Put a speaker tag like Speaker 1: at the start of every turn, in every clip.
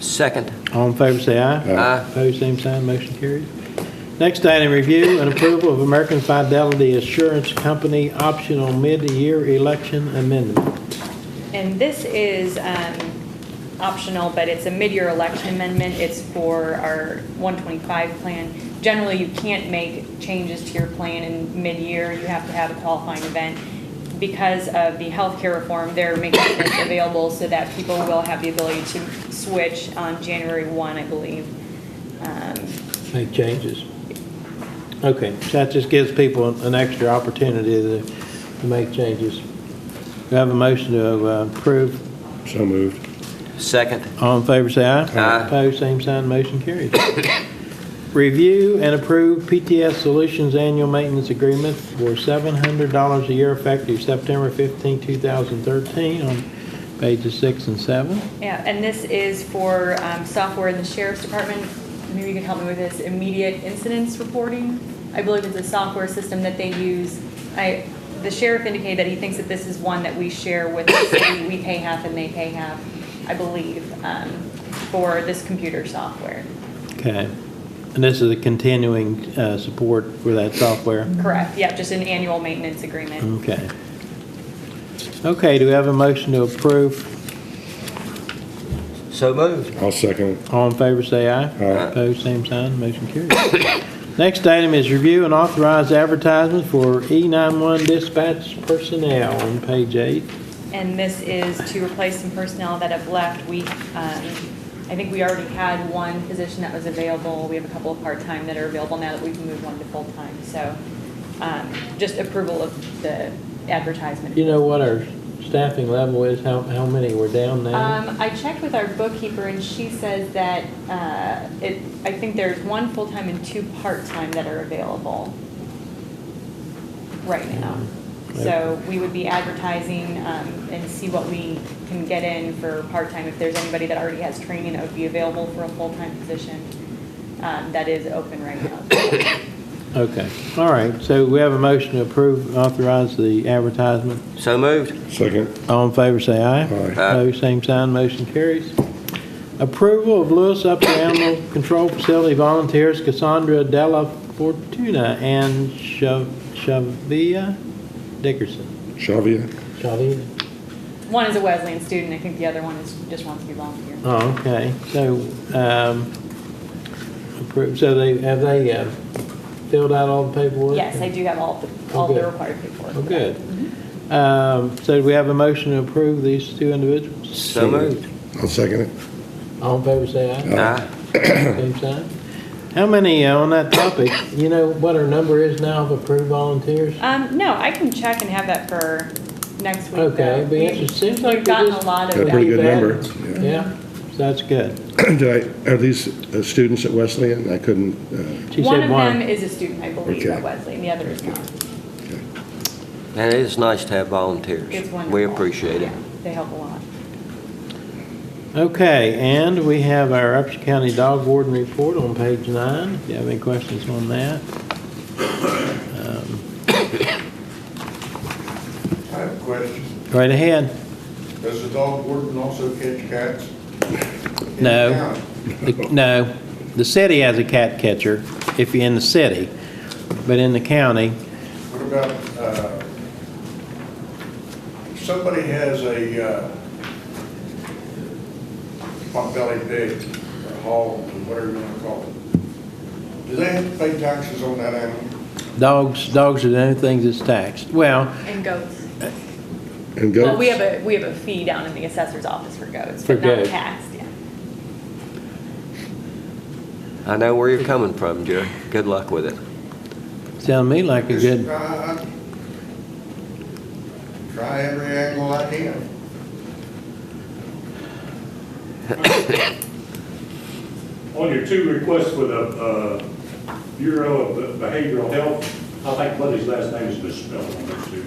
Speaker 1: Second.
Speaker 2: All in favor, say aye.
Speaker 1: Aye.
Speaker 2: Opposed, same sign, motion carries. Next item, review and approval of American Fidelity Assurance Company optional mid-year election amendment.
Speaker 3: And this is um, optional, but it's a mid-year election amendment. It's for our 125 plan. Generally, you can't make changes to your plan in mid-year. You have to have a qualifying event. Because of the healthcare reform, they're making this available so that people will have the ability to switch on January 1, I believe. Um,
Speaker 2: Make changes. Okay, so that just gives people an extra opportunity to, to make changes. Do I have a motion to uh, approve?
Speaker 4: So moved.
Speaker 1: Second.
Speaker 2: All in favor, say aye.
Speaker 1: Aye.
Speaker 2: Opposed, same sign, motion carries. Review and approve PTS Solutions Annual Maintenance Agreement for $700 a year effective September 15, 2013, on pages six and seven.
Speaker 3: Yeah, and this is for um, software in the sheriff's department. Maybe you can help me with this, immediate incidents reporting. I believe it's a software system that they use. I, the sheriff indicated that he thinks that this is one that we share with the city. We pay half and they pay half, I believe, um, for this computer software.
Speaker 2: Okay. And this is a continuing uh, support for that software?
Speaker 3: Correct, yeah, just an annual maintenance agreement.
Speaker 2: Okay. Okay, do we have a motion to approve?
Speaker 1: So moved.
Speaker 4: I'll second.
Speaker 2: All in favor, say aye.
Speaker 4: Aye.
Speaker 2: Opposed, same sign, motion carries. Next item is review and authorize advertisement for E91 dispatch personnel on page eight.
Speaker 3: And this is to replace some personnel that have left. We, um, I think we already had one position that was available. We have a couple of part-time that are available now that we've moved one to full-time. So um, just approval of the advertisement.
Speaker 2: You know what our staffing level is, how, how many we're down now?
Speaker 3: Um, I checked with our bookkeeper and she says that uh, it, I think there's one full-time and two part-time that are available right now.
Speaker 2: Mm-hmm.
Speaker 3: So we would be advertising um, and see what we can get in for part-time. If there's anybody that already has training that would be available for a full-time position, um, that is open right now.
Speaker 2: Okay, all right, so we have a motion to approve, authorize the advertisement.
Speaker 1: So moved.
Speaker 4: Second.
Speaker 2: All in favor, say aye.
Speaker 4: Aye.
Speaker 2: Opposed, same sign, motion carries. Approval of Lewis Upper Animal Control Facility volunteers Cassandra Della Fortuna and Shav- Shavia Dickerson.
Speaker 4: Shavia.
Speaker 2: Shavia?
Speaker 3: One is a Wesleyan student, I think the other one is, just wants to be volunteer.
Speaker 2: Oh, okay, so, um, appro- so they, have they uh, filled out all the paperwork?
Speaker 3: Yes, I do have all, the- all the
Speaker 2: Okay.
Speaker 3: required paperwork.
Speaker 2: Oh, good. Um, So do we have a motion to approve these two individuals?
Speaker 1: So moved.
Speaker 4: I'll second it.
Speaker 2: All in favor, say aye.
Speaker 1: Aye.
Speaker 2: Same sign. How many, uh, on that topic, you know what our number is now of approved volunteers?
Speaker 3: Um, no, I can check and have that for next week.
Speaker 2: Okay,
Speaker 3: though.
Speaker 2: be
Speaker 3: We-
Speaker 2: interesting. Seems like
Speaker 3: We've gotten
Speaker 2: we
Speaker 3: a
Speaker 2: just-
Speaker 3: lot
Speaker 4: Got
Speaker 3: of
Speaker 4: a
Speaker 3: that.
Speaker 4: pretty good
Speaker 2: Bad.
Speaker 4: number.
Speaker 2: Yeah, so that's good.
Speaker 4: Did I, are these uh, students at Wesleyan? I couldn't, uh,
Speaker 2: She
Speaker 3: One
Speaker 2: said
Speaker 3: of them
Speaker 2: one.
Speaker 3: is a student, I believe,
Speaker 4: Okay.
Speaker 3: at Wesley, and the other is not.
Speaker 1: And it is nice to have volunteers.
Speaker 3: It's wonderful.
Speaker 1: We appreciate it.
Speaker 3: Yeah, They help a lot.
Speaker 2: Okay, and we have our Upshur County Dog Warden Report on page nine. If you have any questions on that?
Speaker 5: I have a question.
Speaker 2: Right ahead.
Speaker 5: Does the dog warden also catch cats? in
Speaker 2: No.
Speaker 5: town?
Speaker 2: The- No, the city has a cat catcher, if you're in the city, but in the county,
Speaker 5: What about, uh, if somebody has a uh, pot-bellied pig, or hog, or whatever you want to call it, do they have to pay taxes on that animal?
Speaker 2: dogs, dogs are the only things that's taxed. Well,
Speaker 3: And goats.
Speaker 4: and go.
Speaker 3: Well, we have a, we have a fee down in the assessor's office for goats,
Speaker 2: For
Speaker 3: but not
Speaker 2: goats.
Speaker 3: cats, yeah.
Speaker 1: I know where you're coming from, Jerry. Good luck with it.
Speaker 2: sound to me like a
Speaker 5: Just
Speaker 2: good,
Speaker 5: try- Try every angle I can.
Speaker 6: On your two requests with the uh, Bureau of Behavioral Health, I think Buddy's last name is misspelled on those two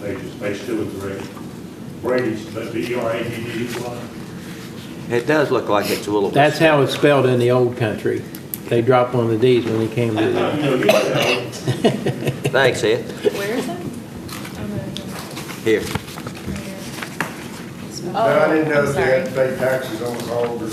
Speaker 6: pages, page two and three. Brady's, but B R A D D E Y.
Speaker 1: It does look like it's a little.
Speaker 2: That's how it's spelled in the old country. They drop on the Ds when they came to
Speaker 6: You
Speaker 2: the,
Speaker 6: know, you know,
Speaker 1: Thanks, Ed.
Speaker 3: Where is it?
Speaker 1: Here.
Speaker 5: But I didn't
Speaker 3: Oh,
Speaker 5: know
Speaker 3: I'm
Speaker 5: if they had
Speaker 3: Oh, sorry.
Speaker 5: to pay taxes on the hog or